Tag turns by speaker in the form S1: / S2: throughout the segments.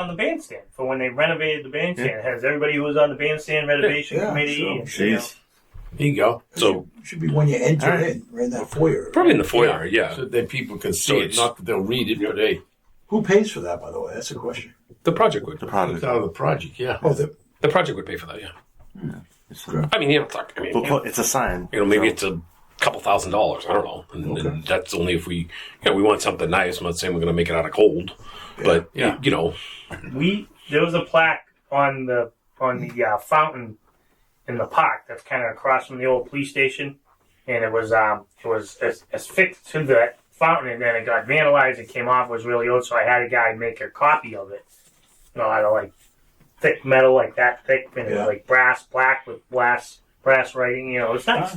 S1: on the bandstand for when they renovated the bandstand. It has everybody who was on the bandstand renovation
S2: Yeah,
S1: committee.
S2: sure.
S1: and, you know,
S3: Jeez.
S4: There you go.
S3: So
S2: Should be when you enter
S4: All right.
S2: in, right in that foyer.
S3: probably in the foyer, yeah.
S4: So that people can see
S3: So
S4: it.
S3: it's-
S4: Not that they'll read it, but hey,
S2: Who pays for that, by the way? That's a question.
S3: The project would.
S5: The
S4: it's
S5: product.
S4: out of the project, yeah.
S2: Oh, the,
S3: The project would pay for that, yeah.
S5: It's a,
S3: I mean, you know, it's like, I mean, you know,
S5: booklet- it's a sign.
S3: you know, maybe it's a couple thousand dollars. I don't know. And, and that's only if we, you know, we want something nice. I'm not saying we're going to make it out of gold, but
S4: Yeah.
S3: you know,
S1: we there was a plaque on the on the uh, fountain in the park that's kind of across from the old police station, and it was um it was as, affixed to the fountain, and then it got vandalized. It came off it was really old, so I had a guy make a copy of it, you know, out of like thick metal like that thick, and it
S2: Yeah.
S1: was like brass black with brass brass writing. You know, it's nice.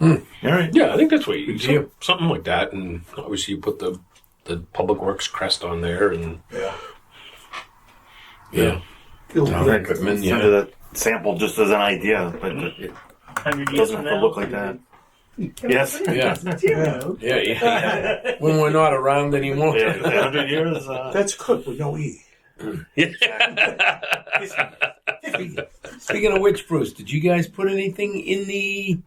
S5: All right.
S3: yeah, I think that's what you
S4: Good
S3: do.
S4: deal.
S3: Something like that, and obviously you put the the public works crest on there, and
S2: yeah.
S3: yeah,
S4: Town equipment,
S5: Send
S4: yeah.
S5: it a sample just as an idea, but it
S1: Hundred years
S5: doesn't
S1: from
S5: have to
S1: now,
S5: look like that. Yes.
S4: Yeah.
S2: yeah.
S4: Yeah, yeah, yeah. when we're not around anymore.
S5: Yeah, 100 years. Uh,
S2: That's cooked with no E.
S4: Speaking of which, Bruce, did you guys put anything in the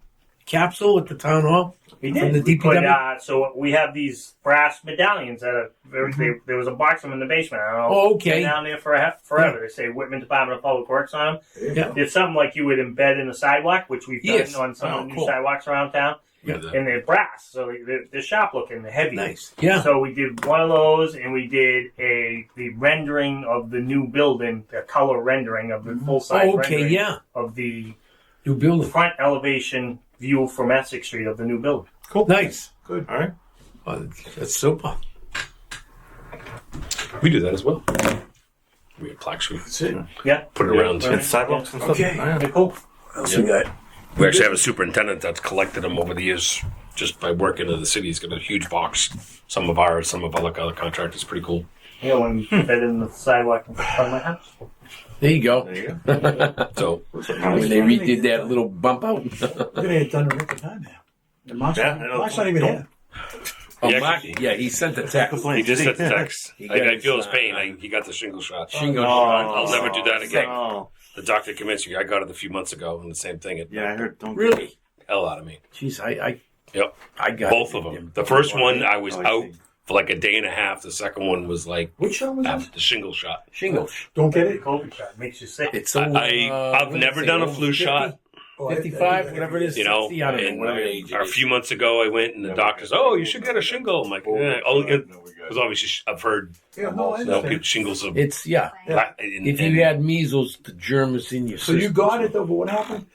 S4: capsule at the town hall?
S1: We
S4: From
S1: did.
S4: the
S1: we put,
S4: DPW?
S1: uh, so we have these brass medallions that are there, they, there was a box of them in the basement. I don't know.
S4: Oh, Mm-hmm. okay.
S1: They're down there for forever. They say Whitman Department of Public Works on them.
S2: There you
S4: Yeah.
S2: go.
S1: There's something like you would embed in the sidewalk, which we've done
S4: Yes.
S1: on some
S4: Oh,
S1: of the new
S4: cool.
S1: sidewalks around town,
S3: yeah, the-
S1: and they're brass, so they- they're, they're sharp looking, they're heavy.
S4: Nice. Yeah.
S1: So we did one of those, and we did a the rendering of the new building, the color rendering of the full size
S4: Oh, okay.
S1: rendering
S4: Yeah.
S1: of the
S4: New building.
S1: front elevation view from Essex Street of the new building.
S4: Nice.
S5: all right.
S4: Oh, that's super.
S3: we do that as well. We have plaques. We
S2: That's it.
S1: Yeah.
S3: put it around.
S1: Yeah.
S5: And sidewalks and stuff.
S2: Okay.
S5: All right.
S1: Cool.
S2: What else we got?
S3: We actually have a superintendent that's collected them over the years just by working in the city. He's got a huge box. Some of ours, some of other other contractors. Pretty cool.
S1: Yeah, when you bed in the sidewalk in front of my house.
S4: There you go.
S5: There you go.
S3: So
S4: When they redid that little bump out.
S2: We're going to get done in record time now. The Mark's,
S5: Yeah, I know.
S2: Mark's not even here.
S4: Oh,
S3: Yeah,
S4: Mark, yeah, he sent the text.
S3: he just sent the text.
S4: He
S3: I, I
S4: got
S3: feel his
S4: his,
S3: pain.
S4: uh,
S3: I, he got the shingle shot.
S4: Shingle
S3: I'll-
S4: shot.
S3: I'll never do that again.
S5: Oh, No.
S3: The doctor convinced me. I got it a few months ago, and the same thing. It
S5: Yeah, I heard. Don't
S4: Really?
S3: hell out of me.
S4: Jeez, I, I,
S3: Yep,
S4: I got
S3: both
S4: it.
S3: of them. The first one I was
S5: Oh, I
S3: out
S5: see.
S3: for like a day and a half. The second one was like
S2: Which show was
S3: after
S2: that?
S3: the shingle shot.
S4: Shingles.
S2: Don't get
S1: The
S2: it?
S1: COVID shot makes you sick.
S4: It's
S3: I,
S4: over,
S3: I
S4: uh,
S3: I've
S4: what did
S3: never
S4: it say,
S3: done a
S4: over
S3: flu
S4: 50?
S3: shot.
S2: Oh, I- I-
S4: 55, whatever it is.
S3: you know,
S4: 60, I don't know,
S3: and
S4: whatever age it
S3: a
S4: is.
S3: few months ago, I went and the doctor's, oh, you should get a shingle. I'm like, eh, oh, it was obviously sh- I've heard
S2: Yeah, no, I
S3: you know, people,
S2: understand.
S3: shingles of.
S4: It's, yeah.
S3: and-
S4: If
S3: and
S4: you had measles, the germ is in your
S2: So
S4: system.
S2: you got it, though, but what happened?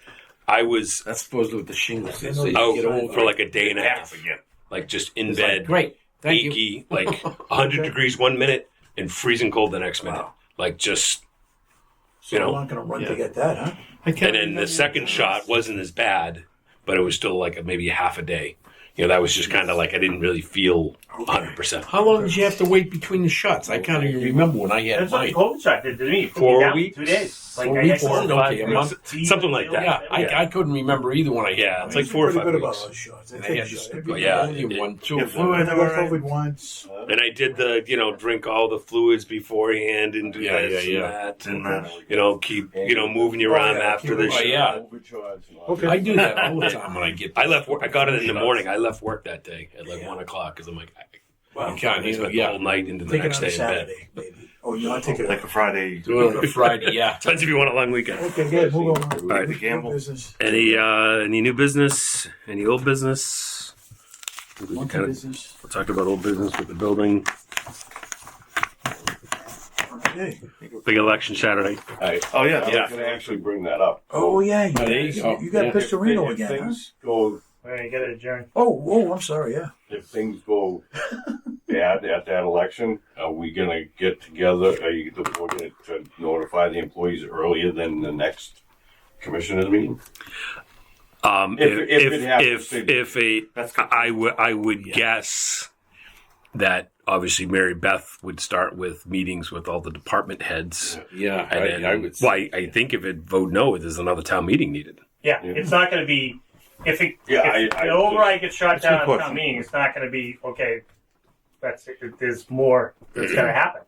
S3: I was
S4: That's supposedly what the shingles is. So you
S3: out
S4: get over
S3: Oh, for
S4: it.
S3: like a day and a half,
S5: again.
S3: like just in
S4: It's like,
S3: bed,
S4: great. Thank you.
S3: achy, like 100 degrees one minute and freezing cold the next minute. Like just,
S2: So
S3: You know.
S2: I'm not going to run
S4: Yeah.
S2: to get that, huh?
S4: I can't
S3: and then the
S4: remember.
S3: second shot wasn't as bad, but it was still like maybe half a day. You know, that was just kind of like I didn't really feel 100%.
S4: How long did you have to wait between the shots? I can't even remember when I had
S1: That's what the
S4: mine.
S1: COVID shot did to me. It put me
S3: Four
S1: down for
S3: weeks?
S1: Two days. Like
S4: Four
S1: I
S4: weeks
S1: had
S4: isn't
S1: four or
S4: okay,
S1: five
S4: a month.
S1: weeks.
S3: Something like that.
S4: Yeah, I, I couldn't remember either when I had.
S3: Yeah,
S4: mine.
S3: it's like
S2: I
S3: four or
S2: feel
S3: five
S2: pretty good
S3: weeks.
S2: about those shots. I
S4: And I
S2: take
S4: had
S2: a
S4: the-
S2: shot every
S3: but
S2: day.
S3: yeah,
S4: only
S3: it-
S4: one, two.
S5: yeah,
S4: of
S5: flu
S4: them.
S2: I
S5: and
S2: got COVID once.
S3: And I did the, you know, drink all the fluids beforehand and do
S4: Yeah,
S3: this
S4: yeah,
S3: and
S4: yeah.
S3: that.
S5: And
S3: And,
S5: that.
S3: you know, keep, you know, moving your
S2: Oh,
S3: arm
S2: yeah,
S3: after the
S4: Oh,
S3: shot.
S4: yeah.
S2: Okay.
S4: I do that all the time when I get.
S3: I left work. I got it in the
S4: shots.
S3: morning. I left work that day at like one o'clock because I'm like, I
S4: You can't
S3: I
S4: handle
S3: spent
S4: yeah.
S3: the whole night into the
S2: Take
S3: next
S2: it on a
S3: day in bed.
S2: Saturday, maybe. Oh, you know, I take it.
S5: Like a Friday.
S4: Do it on a Friday, yeah.
S3: Depends if you want a long weekend.
S2: Okay, good. Move on. All
S5: right, the gamble.
S2: Business.
S3: Any uh, any new business? Any old business? We
S2: Monkey
S3: kind of
S2: business.
S3: talked about old business with the building.
S2: Okay.
S3: Big election Saturday.
S6: Oh yeah,
S3: Yeah.
S6: I was going to actually bring that up.
S2: Oh yeah, you,
S4: Oh, there you
S2: guys-
S4: go.
S2: you got
S4: Yeah.
S2: Pistorino
S6: if,
S2: again, huh?
S6: Things go
S1: All right, you got to adjourn.
S2: Oh, oh, I'm sorry. Yeah.
S6: if things go bad at that election, are we going to get together? Are you we're going to notify the employees earlier than the next commissioners meeting?
S3: Um,
S6: If-
S3: if
S6: if
S3: if
S6: it happens,
S3: if, if, a, I would I would guess that obviously Mary Beth would start with meetings with all the department heads,
S4: Yeah,
S3: and then why I think if it vote no, there's another town meeting needed.
S1: Yeah,
S6: Yeah.
S1: it's not going to be. If it,
S6: Yeah,
S1: if
S6: I- I-
S1: the override gets shot
S5: That's a good
S1: down at town
S5: question.
S1: meeting, it's not going to be okay. That's it. There's more that's going to happen.